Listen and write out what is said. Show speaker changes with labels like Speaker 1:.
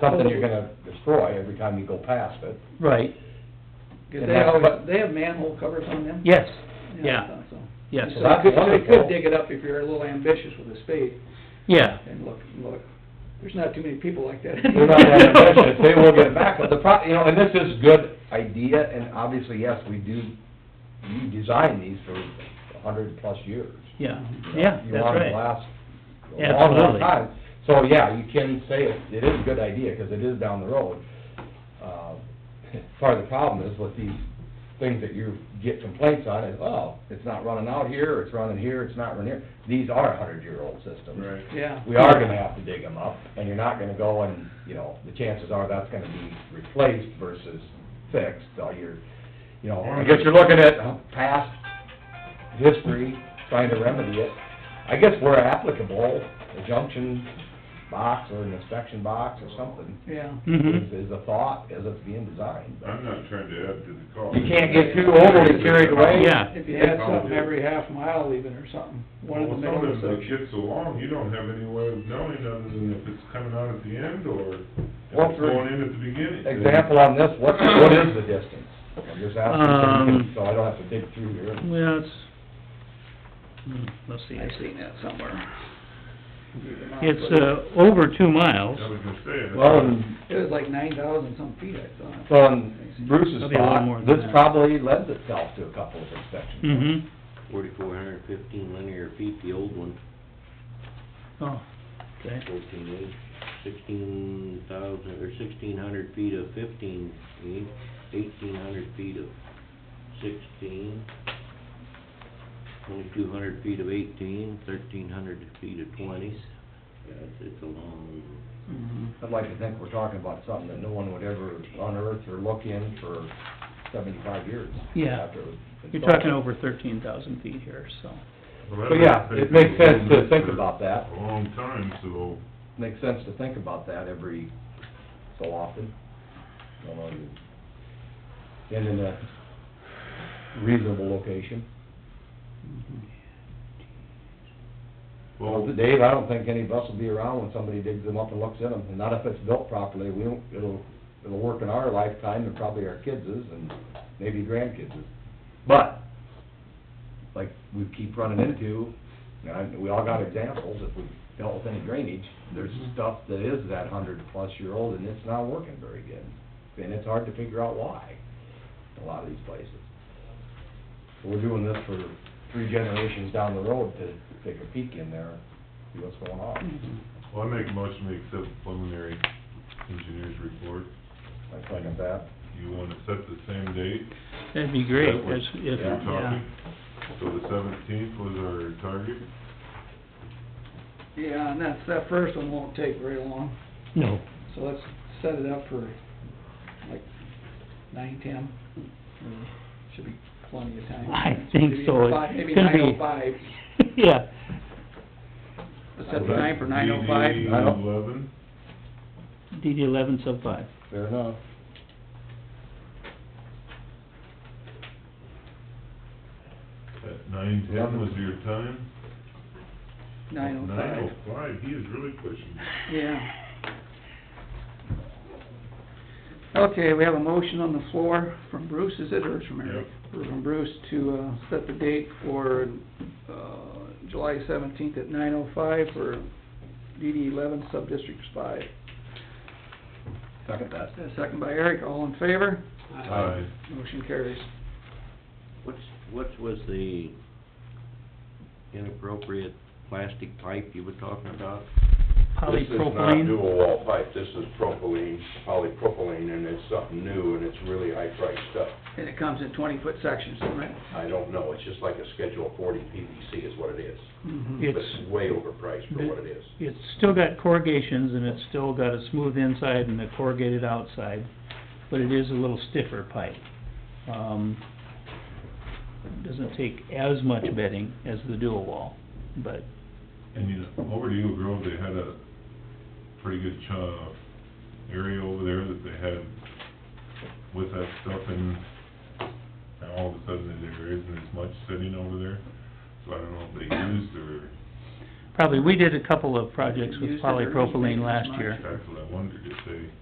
Speaker 1: something you're gonna destroy every time you go past it.
Speaker 2: Right,
Speaker 3: Because
Speaker 1: And
Speaker 3: they
Speaker 1: that's
Speaker 3: have,
Speaker 1: what-
Speaker 3: they have manhole covers on them?
Speaker 2: yes,
Speaker 3: I
Speaker 2: yeah,
Speaker 3: thought so.
Speaker 2: yes,
Speaker 3: So
Speaker 1: That's
Speaker 3: you could,
Speaker 1: wonderful.
Speaker 3: you could dig it up if you're a little ambitious with a spade
Speaker 2: yeah,
Speaker 3: and look, look. There's not too many people like that.
Speaker 1: They're not that ambitious, they will get it back, but the pro, you know, and this is good idea, and obviously, yes, we do, you design these for a hundred plus years.
Speaker 2: yeah, yeah,
Speaker 1: Mm-hmm. You
Speaker 2: that's
Speaker 1: want them to
Speaker 2: right.
Speaker 1: last a long, long
Speaker 2: Absolutely.
Speaker 1: time. So, yeah, you can say it, it is a good idea, 'cause it is down the road. Uh, Part of the problem is with these things that you get complaints on, is, oh, it's not running out here, it's running here, it's not running here. These are hundred-year-old systems.
Speaker 4: Right.
Speaker 3: Yeah.
Speaker 1: we are gonna have to dig them up, and you're not gonna go and, you know, the chances are that's gonna be replaced versus fixed, so you're, you know, I guess you're looking at past history, trying to remedy it. I guess where applicable, a junction box or an inspection box or something
Speaker 3: Yeah.
Speaker 2: Mm-hmm,
Speaker 1: is, is a thought as it's being designed, but
Speaker 4: I'm not trying to add to the cost.
Speaker 1: you can't get too overly carried away.
Speaker 2: yeah,
Speaker 3: If you had something every half mile even or something, one of the middle
Speaker 4: Well, some of
Speaker 3: of the
Speaker 4: them, it gets along, you don't have any way of knowing other than if it's coming out at the end or if
Speaker 1: Well,
Speaker 4: it's
Speaker 1: for
Speaker 4: going in at the beginning.
Speaker 1: Example on this, what, what is the distance? I'm just asking,
Speaker 2: Um,
Speaker 1: so I don't have to dig through here.
Speaker 2: well, it's, hmm, let's see,
Speaker 3: I've seen that somewhere.
Speaker 2: it's, uh, over two miles,
Speaker 4: I was gonna say. it's-
Speaker 1: Well, and
Speaker 3: It was like nine thousand some feet, I thought.
Speaker 1: Well, in Bruce's
Speaker 2: Probably a lot more
Speaker 1: thought,
Speaker 2: than
Speaker 1: this
Speaker 2: that.
Speaker 1: probably lends itself to a couple of inspections.
Speaker 2: mm-hmm,
Speaker 5: Forty-four hundred fifteen linear feet, the old one,
Speaker 2: oh, okay,
Speaker 5: fourteen eight, sixteen thousand, or sixteen hundred feet of fifteen feet, eighteen hundred feet of sixteen, twenty-two hundred feet of eighteen, thirteen hundred feet of twenties. Yeah, it's, it's a long,
Speaker 3: Mm-hmm.
Speaker 1: I'd like to think we're talking about something that no one would ever unearth or look in for seventy-five years.
Speaker 2: Yeah.
Speaker 1: after it was
Speaker 2: you're
Speaker 1: installed.
Speaker 2: talking over thirteen thousand feet here, so,
Speaker 4: well,
Speaker 1: So,
Speaker 4: that
Speaker 1: yeah,
Speaker 4: would
Speaker 1: it
Speaker 4: take
Speaker 1: makes
Speaker 4: a
Speaker 1: sense to
Speaker 4: little
Speaker 1: think
Speaker 4: bit
Speaker 1: about that.
Speaker 4: A long time, so
Speaker 1: Makes sense to think about that every so often. You know, you- And in a reasonable location. Well,
Speaker 4: Well,
Speaker 1: Dave, I don't think any of us will be around when somebody digs them up and looks in them, and not if it's built properly, we don't, it'll, it'll work in our lifetime and probably our kids' and maybe grandkids'. But, like we keep running into, and I- we all got examples, if we've dealt with any drainage, there's stuff that is that hundred-plus-year-old and it's not working very good. And it's hard to figure out why, in a lot of these places. So we're doing this for three generations down the road to take a peek in there, see what's going on.
Speaker 3: Mm-hmm.
Speaker 4: well, I make a motion to accept preliminary engineer's report.
Speaker 1: I second that.
Speaker 4: You wanna set the same date?
Speaker 2: that'd be great,
Speaker 4: That was-
Speaker 2: that's, if,
Speaker 4: We're
Speaker 2: yeah,
Speaker 4: talking, so the seventeenth was our target?
Speaker 3: Yeah, and that's, that first one won't take very long,
Speaker 2: no,
Speaker 3: so let's set it up for like nine, ten. Should be plenty of time.
Speaker 2: I think so. It's
Speaker 3: Five- Maybe
Speaker 2: gonna
Speaker 3: nine
Speaker 2: be-
Speaker 3: oh five,
Speaker 2: yeah,
Speaker 3: let's set the time for nine oh five.
Speaker 4: DD
Speaker 1: I don't-
Speaker 4: eleven?
Speaker 2: DD eleven sub five,
Speaker 1: Fair enough.
Speaker 4: At nine ten was your time?
Speaker 3: Nine oh
Speaker 4: Nine
Speaker 3: five,
Speaker 4: oh five, he is really pushing.
Speaker 3: yeah. Okay, we have a motion on the floor from Bruce, is it, or it's from Eric? From Bruce to, uh, set the date for, uh, July seventeenth at nine oh five for DD eleven, sub-district five.
Speaker 1: Second that.
Speaker 3: A Second by Eric, all in favor?
Speaker 4: Aye.
Speaker 3: Motion carries.
Speaker 5: what's, what was the inappropriate plastic pipe you were talking about?
Speaker 6: This is not
Speaker 2: polypropylene,
Speaker 6: dual wall pipe, this is propylene, polypropylene, and it's something new, and it's really high-priced stuff.
Speaker 3: And it comes in twenty-foot sections, right?
Speaker 6: I don't know, it's just like a Schedule 40 PVC is what it is.
Speaker 1: Mm-hmm.
Speaker 6: But
Speaker 2: it's,
Speaker 6: It's way overpriced for what it is.
Speaker 2: it's still got corrugations, and it's still got a smooth inside and a corrugated outside, but it is a little stiffer pipe. Um, doesn't take as much bedding as the dual wall, but,
Speaker 4: And you know, over to Eagle Grove, they had a pretty good cha, area over there that they had with that stuff and now all of a sudden there isn't as much sitting over there. So I don't know if they used or
Speaker 3: probably, we did a couple of projects
Speaker 2: Used
Speaker 3: with
Speaker 2: it or
Speaker 3: polypropylene
Speaker 2: reused it as
Speaker 3: last
Speaker 2: much.
Speaker 3: year.
Speaker 4: That's what I wondered, if they